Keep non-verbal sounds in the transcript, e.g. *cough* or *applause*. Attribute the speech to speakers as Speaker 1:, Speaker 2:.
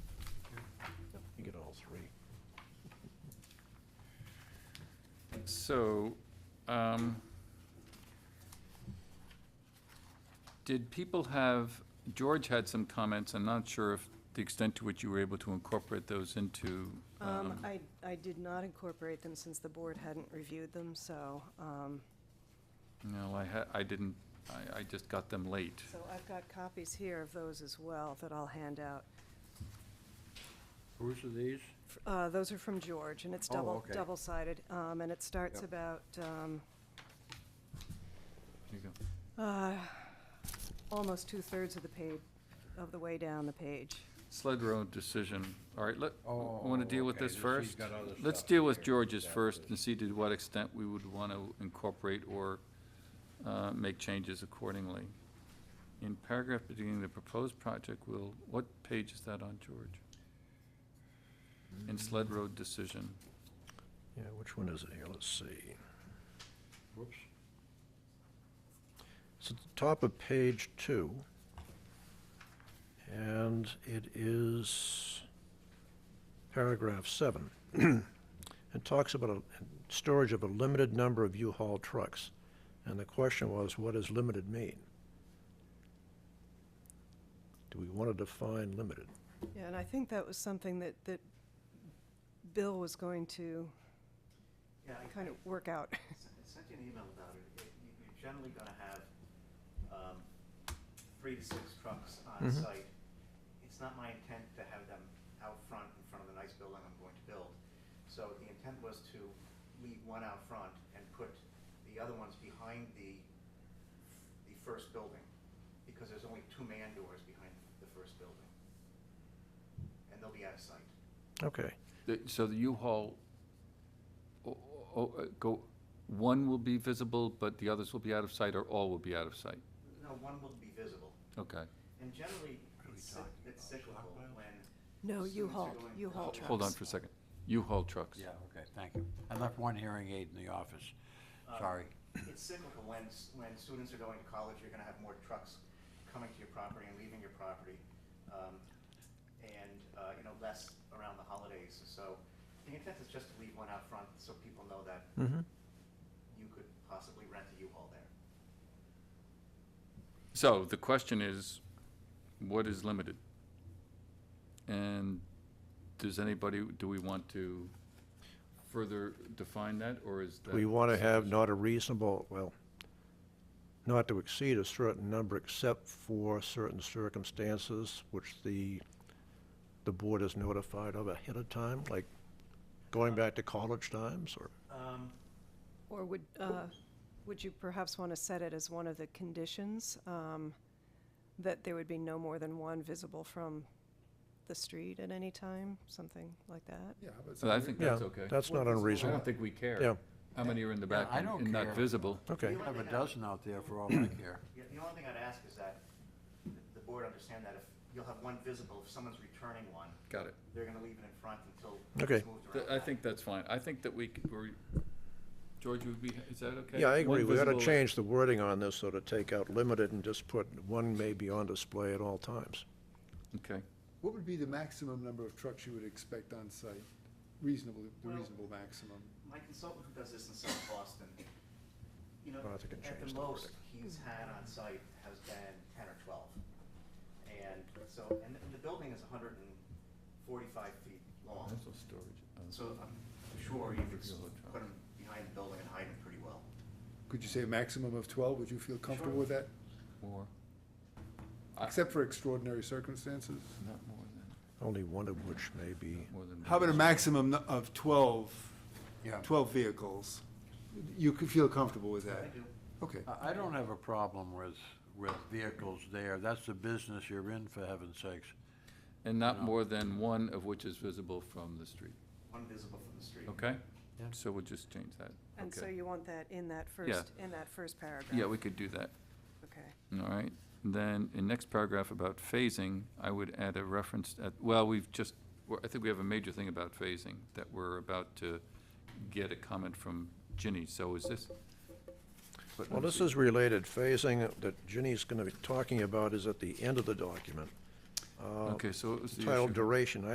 Speaker 1: So, um, did people have, George had some comments, I'm not sure if the extent to which you were able to incorporate those into,
Speaker 2: Um,
Speaker 1: um,
Speaker 2: I, I did not incorporate them since the board hadn't reviewed them, so, um,
Speaker 1: no, I ha, I didn't, I, I just got them late.
Speaker 2: so I've got copies here of those as well that I'll hand out.
Speaker 3: Whose are these?
Speaker 2: F- Uh, those are from George, and it's
Speaker 3: Oh,
Speaker 2: double,
Speaker 3: okay.
Speaker 2: double-sided, um, and it starts
Speaker 3: Yep.
Speaker 2: about, um,
Speaker 1: Here you go.
Speaker 2: uh, almost two-thirds of the page, of the way down the page.
Speaker 1: Sled Road decision, all right, let, want
Speaker 3: Oh,
Speaker 1: to deal with this
Speaker 3: okay,
Speaker 1: first?
Speaker 3: this- he's got other
Speaker 1: Let's
Speaker 3: stuff
Speaker 1: deal with
Speaker 3: here.
Speaker 1: George's
Speaker 3: Yeah,
Speaker 1: first
Speaker 3: this-
Speaker 1: and see to what extent we would want to incorporate or uh, make changes accordingly. In paragraph beginning, the proposed project will, what page is that on, George? In Sled Road decision,
Speaker 4: Yeah, which one is it here? Let's see.
Speaker 3: Whoops.
Speaker 4: It's at the top of page two. And it is paragraph seven. *clears throat* It talks about a storage of a limited number of U-Haul trucks. And the question was, what does limited mean? Do we want to define limited?
Speaker 2: Yeah, and I think that was something that, that Bill was going to
Speaker 5: Yeah, I
Speaker 2: kind of work out.
Speaker 5: I sent I sent you an email about it. It- you- You're generally gonna have, um, three to six trucks on
Speaker 4: Mhm.
Speaker 5: site. It's not my intent to have them out front in front of the nice building I'm going to build. So the intent was to leave one out front and put the other ones behind the, the first building, because there's only two man doors behind the first building. And they'll be out of sight.
Speaker 4: Okay.
Speaker 1: The- so the U-Haul, o- o- uh, go, one will be visible, but the others will be out of sight, or all will be out of sight?
Speaker 5: No, one will be visible.
Speaker 1: Okay,
Speaker 5: And generally, it's cyc- it's cyclical when
Speaker 2: No,
Speaker 5: Students are
Speaker 2: U-Haul,
Speaker 5: going-
Speaker 2: U-Haul trucks.
Speaker 1: hold on for a second. U-Haul trucks.
Speaker 3: Yeah, okay, thank you. I left one hearing aid in the office.
Speaker 5: Uh,
Speaker 3: Sorry.
Speaker 5: It's cyclical. When, s- when students are going to college, you're gonna have more trucks coming to your property and leaving your property. um, And, uh, you know, less around the holidays. So the intent is just to leave one out front so people know that
Speaker 4: Mm-hmm.
Speaker 5: you could possibly rent a U-Haul there.
Speaker 1: So the question is, what is limited? And does anybody, do we want to further define that, or is that?
Speaker 4: We want to have not a reasonable, well, not to exceed a certain number except for certain circumstances which the, the board is notified of ahead of time, like going back to college times or,
Speaker 5: Um,
Speaker 2: Or would, uh, would you perhaps want to set it as one of the conditions, um, that there would be no more than one visible from the street at any time, something like that?
Speaker 6: Yeah, but.
Speaker 1: So I think
Speaker 4: yeah,
Speaker 1: that's okay.
Speaker 4: that's not
Speaker 1: I don't
Speaker 4: unreasonable.
Speaker 1: think we care.
Speaker 4: Yeah.
Speaker 1: How many are in the
Speaker 3: Yeah,
Speaker 1: back
Speaker 3: I
Speaker 1: and
Speaker 3: don't
Speaker 1: and not
Speaker 3: care.
Speaker 1: visible?
Speaker 4: Okay,
Speaker 3: I have a dozen out there for all I care.
Speaker 5: yeah, The only thing I'd ask is that th- the board understand that if, you'll have one visible, if someone's returning one,
Speaker 1: Got it.
Speaker 5: they're gonna leave it in front until
Speaker 4: Okay.
Speaker 5: it's moved
Speaker 1: Th-
Speaker 5: around.
Speaker 1: I
Speaker 5: back.
Speaker 1: think that's fine. I think that we, c- we're- George, would be, is that okay?
Speaker 4: yeah, I agree.
Speaker 1: One
Speaker 4: We ought to
Speaker 1: visible-
Speaker 4: change the wording on this, so to take out limited and just put one may be on display at all times.
Speaker 1: Okay.
Speaker 6: What would be the maximum number of trucks you would expect on site? Reasonable, the
Speaker 5: Well-
Speaker 6: reasonable maximum?
Speaker 5: my consultant who does this in South Boston, you know,
Speaker 4: Well, I think it
Speaker 5: at the
Speaker 4: changed
Speaker 5: most
Speaker 4: already.
Speaker 5: he's had on site has been ten or twelve. And so, and the- the building is hundred and forty-five feet long,
Speaker 1: Also storage uh, of-
Speaker 5: so I'm sure you could s-
Speaker 1: Regular truck.
Speaker 5: put him behind the building and hide him pretty well.
Speaker 6: Could you say a maximum of twelve? Would you feel comfortable
Speaker 5: Sure.
Speaker 6: with that?
Speaker 1: Or, I-
Speaker 6: Except for extraordinary circumstances?
Speaker 1: not more than,
Speaker 4: Only one of which may be,
Speaker 1: more than.
Speaker 6: How about a maximum of twelve?
Speaker 3: Yeah.
Speaker 6: Twelve vehicles? You could feel comfortable with
Speaker 5: I
Speaker 6: that?
Speaker 5: do,
Speaker 6: Okay.
Speaker 3: I, I don't have a problem with, with vehicles there. That's the business you're in, for heaven's sakes.
Speaker 1: And not
Speaker 3: No.
Speaker 1: more than one of which is visible from the street,
Speaker 5: one visible from the street.
Speaker 1: okay?
Speaker 3: Yeah.
Speaker 1: So we'll just change that.
Speaker 2: And so
Speaker 1: Okay.
Speaker 2: you want that in that first, in that first paragraph?
Speaker 1: Yeah, we could do that,
Speaker 2: Okay.
Speaker 1: all right? And Then, in next paragraph about phasing, I would add a reference, at- well, we've just, we're- I think we have a major thing about phasing, that we're about to get a comment from Ginny, so is this?
Speaker 4: Well, this is related. Phasing that Ginny's going to be talking about is at the end of the document, Uh, Oh.
Speaker 1: Okay, so it was the issue.
Speaker 4: titled duration.